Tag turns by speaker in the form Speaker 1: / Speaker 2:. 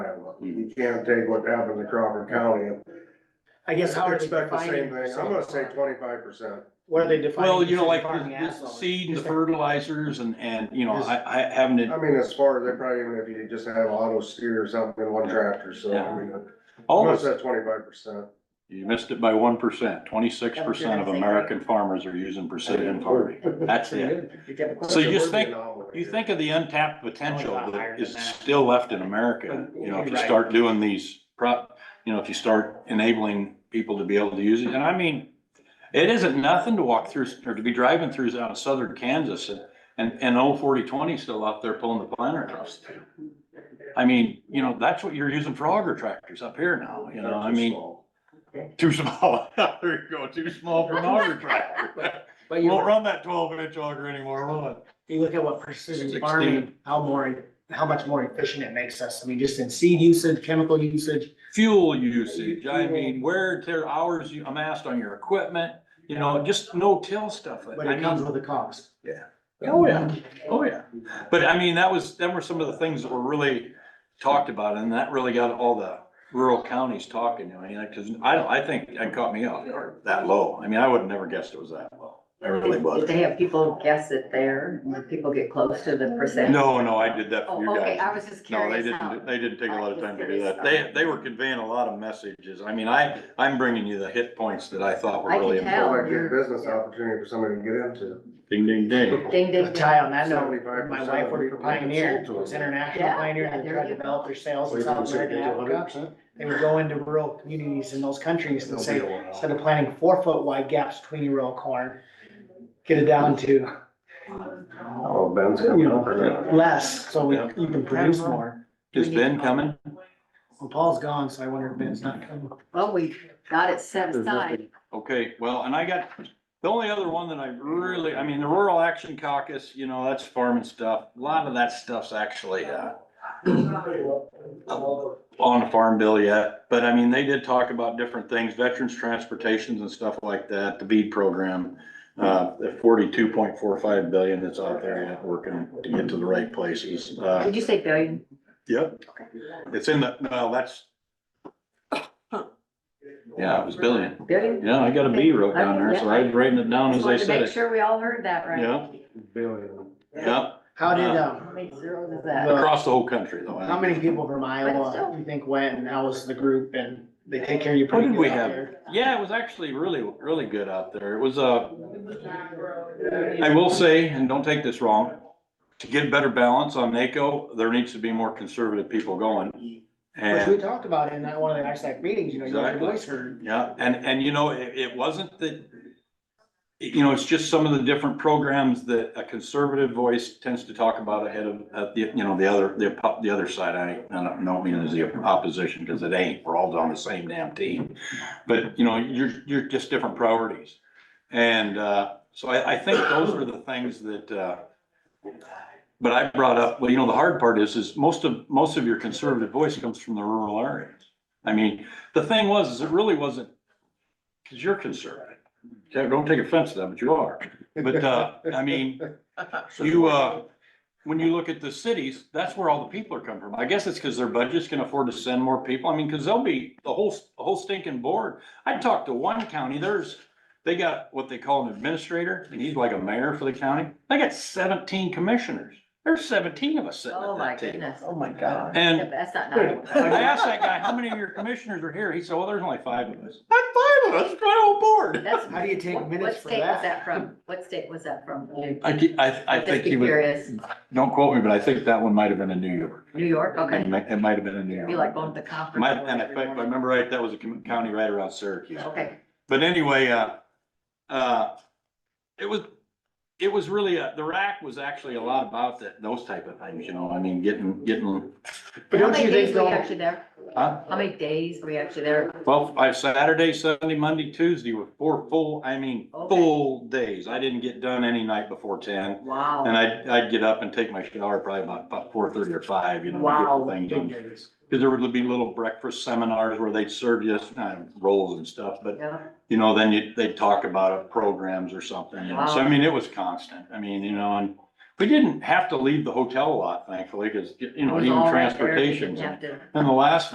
Speaker 1: You can't take what happened to Crawford County
Speaker 2: I
Speaker 1: and
Speaker 2: guess how are they
Speaker 1: expect the same
Speaker 2: defining?
Speaker 1: thing. I'm gonna say
Speaker 2: farming?
Speaker 1: twenty-five percent.
Speaker 2: What are they defining?
Speaker 3: Well, you know,
Speaker 2: as
Speaker 3: like
Speaker 2: farming
Speaker 3: the- the
Speaker 2: asphalt?
Speaker 3: seed and the
Speaker 2: Is that-
Speaker 3: fertilizers and, and, you know, I, I haven't,
Speaker 1: I mean, as far as they probably, even if you just have auto steer or something in one tractor, so I mean, I'm gonna
Speaker 3: almost,
Speaker 1: say twenty-five percent.
Speaker 3: you missed it by one percent. Twenty-six percent of American farmers are using precision farming. That's it.
Speaker 2: You get-
Speaker 3: So you just think- You think of the untapped potential that is still left in America, you know, if you start doing these prop, you know, if you start enabling people to be able to use it, and I mean, it isn't nothing to walk through, or to be driving through out of southern Kansas and, and, and old forty twenty still out there pulling the planter across. the field. I mean, you know, that's what you're using for auger tractors up here now, you know, I mean, too small, there you go, too small for an auger tractor.
Speaker 2: But
Speaker 3: Won't
Speaker 2: you,
Speaker 3: run that twelve inch auger anymore, will it?
Speaker 2: you look at what precision
Speaker 3: 16.
Speaker 2: farming, how more, how much more efficient it makes us. I mean, just in seed usage, chemical usage.
Speaker 3: fuel usage, I mean, wear and tear hours you amassed on your equipment, you know, just no-till stuff.
Speaker 2: But it comes with a cost.
Speaker 3: Oh, yeah, oh, yeah. But I mean, that was, them were some of the things that were really talked about, and that really got all the rural counties talking, I mean, because I don't, I think that caught me off guard, that low. I mean, I would have never guessed it was that low. I really
Speaker 4: Did
Speaker 3: was.
Speaker 4: they have people guess it there, when people get close to the percent?
Speaker 3: No, no, I did that for
Speaker 4: Oh,
Speaker 3: you
Speaker 4: okay,
Speaker 3: guys.
Speaker 4: I was just
Speaker 3: No, they
Speaker 4: curious how.
Speaker 3: didn't, they didn't take a lot of time to do that. They, they were conveying a lot of messages. I mean, I, I'm bringing you the hit points that I thought were
Speaker 4: I can
Speaker 3: really
Speaker 4: tell.
Speaker 3: important.
Speaker 1: Might be a business opportunity for somebody to get into.
Speaker 3: Ding, ding, ding.
Speaker 4: Ding, ding, ding.
Speaker 2: Ty, on that note,
Speaker 1: 75%
Speaker 2: my wife worked for
Speaker 1: of the people sold
Speaker 2: Pioneer,
Speaker 1: to
Speaker 2: it was
Speaker 1: them.
Speaker 2: international
Speaker 4: Yeah,
Speaker 2: Pioneer, and they
Speaker 4: there
Speaker 2: tried
Speaker 4: you
Speaker 2: to develop
Speaker 4: go.
Speaker 2: their sales in South America and Africa. They would go into rural communities in those countries and say, instead of planting four foot wide gaps between your row of corn, get it down to,
Speaker 1: Oh, Ben's
Speaker 2: you
Speaker 1: coming up.
Speaker 2: know, less, so we, you can produce more.
Speaker 3: Is Ben coming?
Speaker 2: Well, Paul's gone, so I wonder if Ben's not coming.
Speaker 4: Well, we got it set aside.
Speaker 3: Okay, well, and I got, the only other one that I really, I mean, the Rural Action Caucus, you know, that's farming stuff. A lot of that stuff's actually, uh, on a farm bill yet, but I mean, they did talk about different things, veterans transportations and stuff like that, the BEAD program. Uh, the forty-two point four five billion that's out there yet, working to get to the right places. Uh,
Speaker 4: Did you say billion?
Speaker 3: Yep. It's in the, no, that's. Yeah, it was billion.
Speaker 4: Billion?
Speaker 3: Yeah, I got a B wrote down there, so I was writing it down as
Speaker 4: Just
Speaker 3: I
Speaker 4: wanted to
Speaker 3: said
Speaker 4: make
Speaker 3: it.
Speaker 4: sure we all heard that right.
Speaker 3: Yeah,
Speaker 1: Billion.
Speaker 3: yeah,
Speaker 2: How did,
Speaker 4: How
Speaker 2: um,
Speaker 4: many zeros is that?
Speaker 3: across the whole country though.
Speaker 2: how many people from Iowa, you think went, and how was the group, and they take care of you
Speaker 3: What
Speaker 2: pretty
Speaker 3: did we
Speaker 2: good out
Speaker 3: have?
Speaker 2: there?
Speaker 3: Yeah, it was actually really, really good out there. It was, uh, I will say, and don't take this wrong, to get better balance on NACO, there needs to be more conservative people going.
Speaker 2: Which we
Speaker 3: And,
Speaker 2: talked about in that one of the ISAC meetings, you know, you got
Speaker 3: Exactly.
Speaker 2: your voice heard.
Speaker 3: yeah, and, and you know, it, it wasn't that, you know, it's just some of the different programs that a conservative voice tends to talk about ahead of, uh, the, you know, the other, the, oppo- the other side. I, I don't know, mean as the opposition, because it ain't, we're all on the same damn team. But, you know, you're, you're just different priorities. And, uh, so I, I think those were the things that, uh, but I brought up, well, you know, the hard part is, is most of, most of your conservative voice comes from the rural areas. I mean, the thing was, is it really wasn't, because you're conservative. Don't take offense to that, but you are. But, uh, I mean, you, uh, when you look at the cities, that's where all the people are coming from. I guess it's because their budgets can afford to send more people. I mean, because they'll be, the whole, the whole stinking board. I talked to one county, there's, they got what they call an administrator, and he's like a mayor for the county. They got seventeen commissioners. There's seventeen of us sitting
Speaker 4: Oh,
Speaker 3: at
Speaker 4: my
Speaker 3: that table.
Speaker 4: goodness.
Speaker 2: my God.
Speaker 4: Yeah,
Speaker 3: And
Speaker 4: but That's not
Speaker 3: I
Speaker 4: nine.
Speaker 3: asked that guy, how many of your commissioners are here? He said, well, there's only five of us. i five of us, my whole board.
Speaker 4: That's,
Speaker 2: How do you take
Speaker 4: what
Speaker 2: minutes for
Speaker 4: state was that
Speaker 2: that?
Speaker 4: from? What state was that from?
Speaker 3: I, thi- I, I
Speaker 4: Just
Speaker 3: think
Speaker 4: be
Speaker 3: he was,
Speaker 4: Curious.
Speaker 3: don't quote me, but I think that one might have been in New York.
Speaker 4: New York,
Speaker 3: It
Speaker 4: okay.
Speaker 3: might, it might have been in New York.
Speaker 4: You like going to the conference.
Speaker 3: Might,
Speaker 4: or
Speaker 3: and if I,
Speaker 4: whatever
Speaker 3: if
Speaker 4: you
Speaker 3: I
Speaker 4: want.
Speaker 3: remember right, that was a com- county right around Syracuse.
Speaker 4: Okay,
Speaker 3: But anyway, uh, uh, it was, it was really, uh, the rack was actually a lot about that, those type of things, you know, I mean, getting, getting,
Speaker 2: But
Speaker 4: how
Speaker 2: don't
Speaker 4: many
Speaker 2: you think
Speaker 4: days were you
Speaker 2: though,
Speaker 4: actually there?
Speaker 3: huh?
Speaker 4: How many days were you actually there?
Speaker 3: Well, I, Saturday, Sunday, Monday, Tuesday were four full, I mean,
Speaker 4: Okay.
Speaker 3: full days. I didn't get done any night before ten. And
Speaker 4: Wow,
Speaker 3: I'd, I'd get up and take my shower probably about, about four thirty or five, you know. to
Speaker 4: Wow.
Speaker 3: get the thing done. Cause there would be little breakfast seminars where they'd serve you, uh, rolls and stuff, but
Speaker 4: yeah,
Speaker 3: you know, then you, they'd talk about it, programs or something, you know, so I
Speaker 4: Wow.
Speaker 3: mean, it was constant, I mean, you know, and we didn't have to leave the hotel a lot, thankfully, because, you
Speaker 4: It
Speaker 3: know,
Speaker 4: was
Speaker 3: even
Speaker 4: all right there. You
Speaker 3: transportation.
Speaker 4: didn't have to-
Speaker 3: And the last